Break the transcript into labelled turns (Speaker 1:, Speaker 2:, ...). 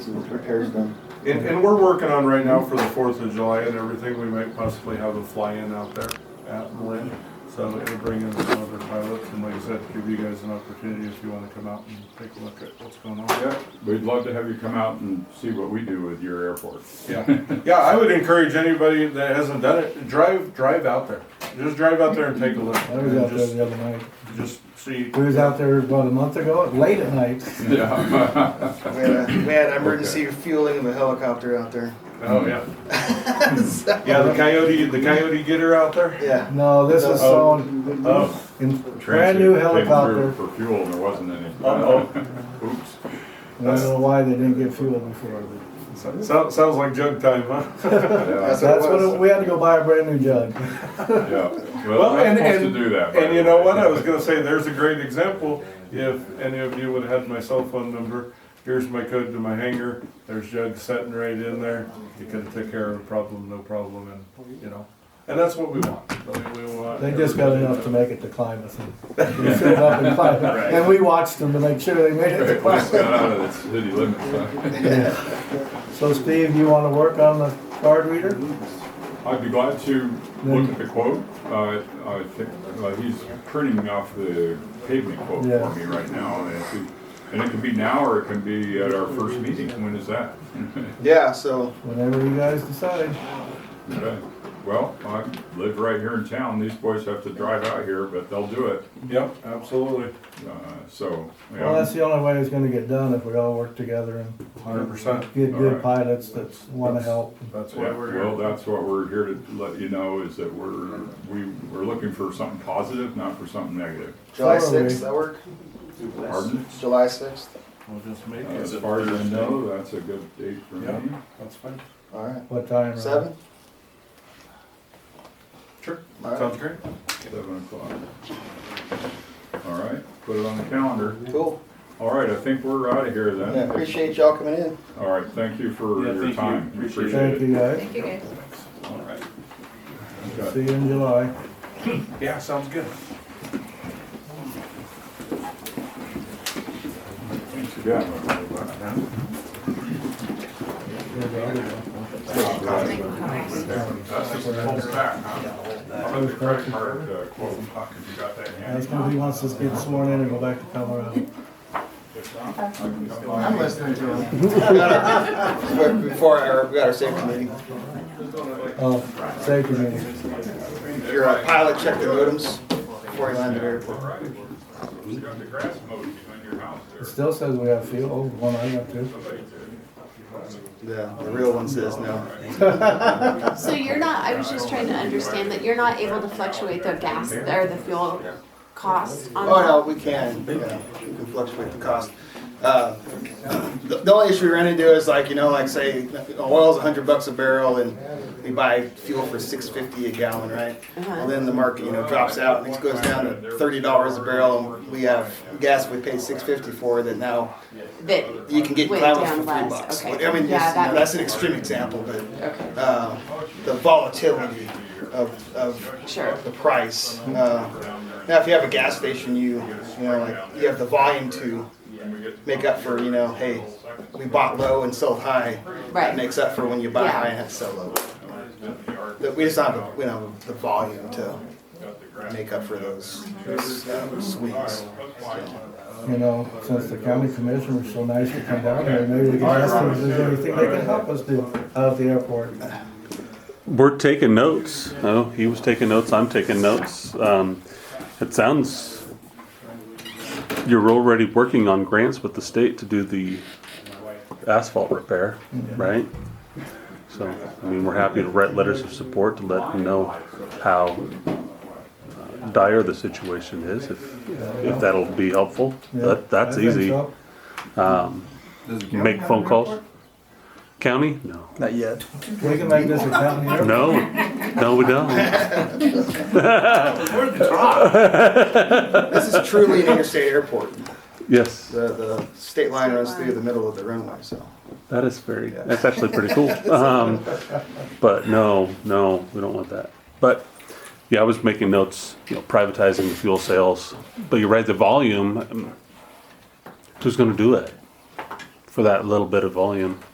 Speaker 1: and repairs done.
Speaker 2: And, and we're working on right now for the Fourth of July and everything, we might possibly have a fly-in out there at Marin. So it'll bring in some other pilots and like I said, give you guys an opportunity if you wanna come out and take a look at what's going on.
Speaker 3: Yeah, we'd love to have you come out and see what we do with your airport.
Speaker 2: Yeah, yeah, I would encourage anybody that hasn't done it, drive, drive out there. Just drive out there and take a look.
Speaker 1: I was out there
Speaker 2: Just-
Speaker 1: the other night.
Speaker 2: Just see,
Speaker 1: We was out there about a month ago, late at night.
Speaker 3: Yeah.
Speaker 4: We had, a, we had emergency fueling of a helicopter out there.
Speaker 2: oh, yeah.
Speaker 4: So,
Speaker 2: Yeah, the coyote, the coyote getter out there?
Speaker 4: yeah.
Speaker 1: No, this is
Speaker 2: Oh.
Speaker 1: sold
Speaker 2: Oh,
Speaker 1: in brand new
Speaker 3: Transit came through
Speaker 1: helicopter.
Speaker 3: For fuel, and there wasn't any.
Speaker 2: Uh-oh.
Speaker 3: Oops.
Speaker 1: I don't know why they didn't get fuel before. but-
Speaker 2: so- sounds, sounds like jug time, huh?
Speaker 3: Yeah,
Speaker 4: That's what it
Speaker 1: That's what,
Speaker 4: was.
Speaker 1: it- we had to go buy a brand new jug.
Speaker 3: yeah.
Speaker 2: Well,
Speaker 3: Well, we're
Speaker 2: and-
Speaker 3: supposed to
Speaker 2: and-
Speaker 3: do that. by
Speaker 2: And you
Speaker 3: the
Speaker 2: know
Speaker 3: way.
Speaker 2: what, I was gonna say, there's a great example, if any of you would have had my cell phone number, here's my code to my hangar, there's Jug sitting right in there, you could've took care of a problem, no problem, and, you know, and that's what we want, I mean, we want.
Speaker 1: They just got
Speaker 2: everybody
Speaker 1: enough to make it to Klamath. and they filled up in Klamath. And we watched them to make sure they made it to
Speaker 3: We just
Speaker 1: Klamath.
Speaker 3: got out of the city limits, huh?
Speaker 1: So Steve, you wanna work on the card reader?
Speaker 3: I'd be glad to look at the quote. Uh, I think, uh, he's printing off the pavement quote
Speaker 1: Yeah.
Speaker 3: for me right now. and if we- And it can be now or it can be at our first meeting. When is that?
Speaker 4: Yeah, so
Speaker 1: Whenever you guys decide.
Speaker 3: Okay. Well, I live right here in town. These boys have to drive out here, but they'll do it.
Speaker 2: Yep, absolutely,
Speaker 3: Uh, So,
Speaker 1: Well,
Speaker 3: yeah,
Speaker 1: that's the only way it's gonna get done, if we all work together and
Speaker 2: hundred percent,
Speaker 1: get good
Speaker 3: Alright.
Speaker 1: pilots that wanna help.
Speaker 2: that's why
Speaker 3: Yeah,
Speaker 2: we're
Speaker 3: well,
Speaker 2: here.
Speaker 3: that's what we're here to let you know is that we're, we, we're looking for something positive, not for something negative.
Speaker 4: July
Speaker 1: So are we.
Speaker 4: 6th, that work?
Speaker 3: Pardon?
Speaker 4: July 6th?
Speaker 2: We'll just make
Speaker 3: Uh,
Speaker 2: it,
Speaker 3: As far as I know, that's a good date for
Speaker 2: Yeah.
Speaker 3: me.
Speaker 2: that's fine,
Speaker 4: All right.
Speaker 1: What time? Rob?
Speaker 4: 7?
Speaker 2: sure,
Speaker 4: All right.
Speaker 2: sounds great.
Speaker 3: Seven o'clock. All right, put it on the calendar.
Speaker 4: Cool.
Speaker 3: All right, I think we're out of here
Speaker 4: Yeah,
Speaker 3: then.
Speaker 4: appreciate y'all coming in.
Speaker 3: All right, thank you for
Speaker 2: Yeah,
Speaker 3: your
Speaker 2: thank you.
Speaker 3: time.
Speaker 2: Appreciate it.
Speaker 1: Thank you guys.
Speaker 5: Thank you, guys.
Speaker 3: All right.
Speaker 1: See
Speaker 3: Okay.
Speaker 1: you in July.
Speaker 2: Yeah, sounds good.
Speaker 3: Thanks again. That's the whole stack, huh? How about the credit card, uh, quote, Huck, if you got that handy?
Speaker 1: That's when he wants us to get sworn in and go back to Colorado.
Speaker 3: If not, I can come by.
Speaker 4: I'm listening to him. Before our, we got our safety meeting.
Speaker 1: Oh, safety meeting.
Speaker 4: Your uh, pilot checked the modems before he landed at the airport.
Speaker 3: All right. You got the grass mowed behind your house
Speaker 1: It
Speaker 3: there.
Speaker 1: still says we have fuel, Oh, the one I got to.
Speaker 3: Somebody did.
Speaker 4: Yeah, the real one says no.
Speaker 5: Oh, So you're not, I was just trying to understand that you're not able to fluctuate the gas or the fuel cost on
Speaker 4: Oh,
Speaker 5: that?
Speaker 4: no, we can, yeah, we can fluctuate the cost. Uh, The the only issue we run into is like, you know, like say, oil's a hundred bucks a barrel and we buy fuel for six fifty a gallon, right?
Speaker 5: Uh-huh.
Speaker 4: Well, then the market, you know, drops out and it goes down to thirty dollars a barrel and we have gas we paid six fifty for that now
Speaker 5: That,
Speaker 4: you can get
Speaker 5: Went
Speaker 4: Klamath
Speaker 5: down
Speaker 4: for three
Speaker 5: less,
Speaker 4: bucks.
Speaker 5: okay.
Speaker 4: I mean,
Speaker 5: Yeah,
Speaker 4: it's- you know,
Speaker 5: that-
Speaker 4: that's an extreme example, but
Speaker 5: okay,
Speaker 4: uh, the volatility of, of
Speaker 5: sure,
Speaker 4: the price. Uh, now, if you have a gas station, you you know like you have the volume to
Speaker 3: And we get-
Speaker 4: make up for you know, hey, we bought low and sold high. That
Speaker 5: right,
Speaker 4: makes up for when you buy
Speaker 5: Yeah.
Speaker 4: high and have to sell low.
Speaker 3: in the yard,
Speaker 4: But we just don't have the, we don't have the volume to
Speaker 3: got the grass.
Speaker 4: make up for those, those uh, swings.
Speaker 1: You know, since the county commissioner's so nice to come down here, maybe we can ask them if there's anything they can help us do out at the airport.
Speaker 6: We're taking notes. Oh, he was taking notes. I'm taking notes. Um, it sounds you're already working on grants with the state to do the asphalt repair, right? So, I mean, we're happy to write letters of support to let them know how uh, dire the situation is, if, if that'll be helpful.
Speaker 1: Yeah,
Speaker 6: That, that's
Speaker 1: I think
Speaker 6: easy.
Speaker 1: so.
Speaker 6: Make phone calls. County? No.
Speaker 7: Not yet.
Speaker 1: We can make this a county airport.
Speaker 6: No, no, we don't.
Speaker 4: This is truly an interstate airport.
Speaker 6: Yes,
Speaker 4: The the state line runs through the middle of the runway, so.
Speaker 6: that is very, that's actually pretty cool. Um, but no, no, we don't want that. But yeah, I was making notes, you know, privatizing the fuel sales. But you're right, the volume, um, who's going to do it? for that little bit of volume.